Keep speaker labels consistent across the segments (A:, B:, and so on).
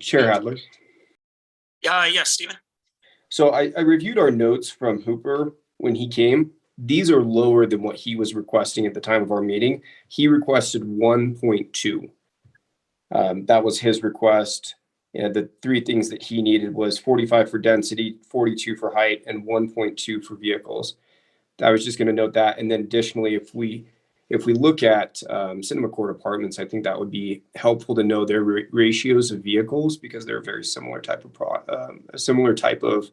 A: Chair Adler.
B: Uh, yes, Stephen?
A: So I, I reviewed our notes from Hooper when he came. These are lower than what he was requesting at the time of our meeting. He requested one point two. Um, that was his request. You know, the three things that he needed was forty-five for density, forty-two for height, and one point two for vehicles. I was just gonna note that, and then additionally, if we, if we look at, um, Cinema Court Apartments, I think that would be helpful to know their ra- ratios of vehicles because they're a very similar type of pro, um, a similar type of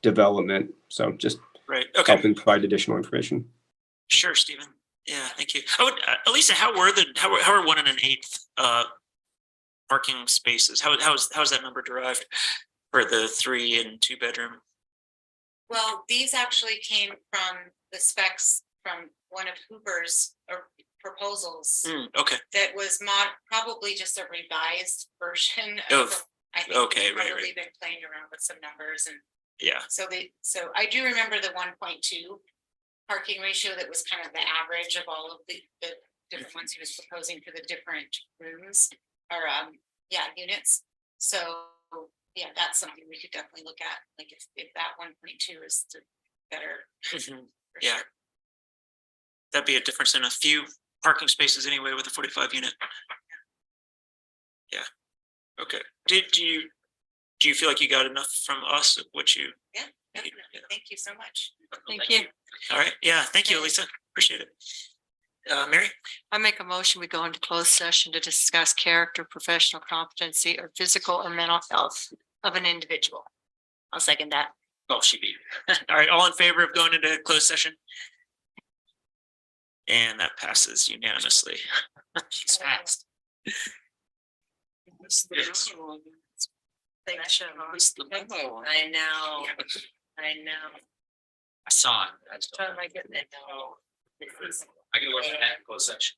A: development. So just
B: Right, okay,
A: helping provide additional information.
B: sure, Stephen. Yeah, thank you. Oh, and, uh, Elisa, how were the, how were, how were one and an eighth, uh, parking spaces? How, how's, how's that number derived for the three and two bedroom?
C: Well, these actually came from the specs from one of Hooper's uh, proposals
B: Hmm, okay,
C: that was mod, probably just a revised version
B: Of-
C: of. I think
B: Oh, okay,
C: we've
B: right, right.
C: Probably been playing around with some numbers and
B: yeah,
C: so they, so I do remember the one point two parking ratio that was kind of the average of all of the, the different ones he was proposing for the different rooms or, um, yeah, units. So, yeah, that's something we could definitely look at, like if, if that one point two is the better.
D: Mm-hmm.
B: Mhm.
C: for
B: Yeah.
C: sure.
B: that'd be a difference in a few parking spaces anyway with a forty-five unit. Yeah, okay. Did, do you, do you feel like you got enough from us of what you?
C: Definitely. Thank you so much.
D: Thank you.
B: All right, yeah, thank you,
C: Okay.
B: Elisa. Appreciate it. Uh, Mary?
D: I make a motion, we go into closed session to discuss character, professional competency, or physical or mental health of an individual. I'll second that.
B: Oh, she beat. me. All right, all in favor of going into closed session? And that passes unanimously. She's fast.
D: Thank you.
B: I
D: know, I know.
B: saw it.
D: Oh, my goodness.
B: I can work on that in closed session.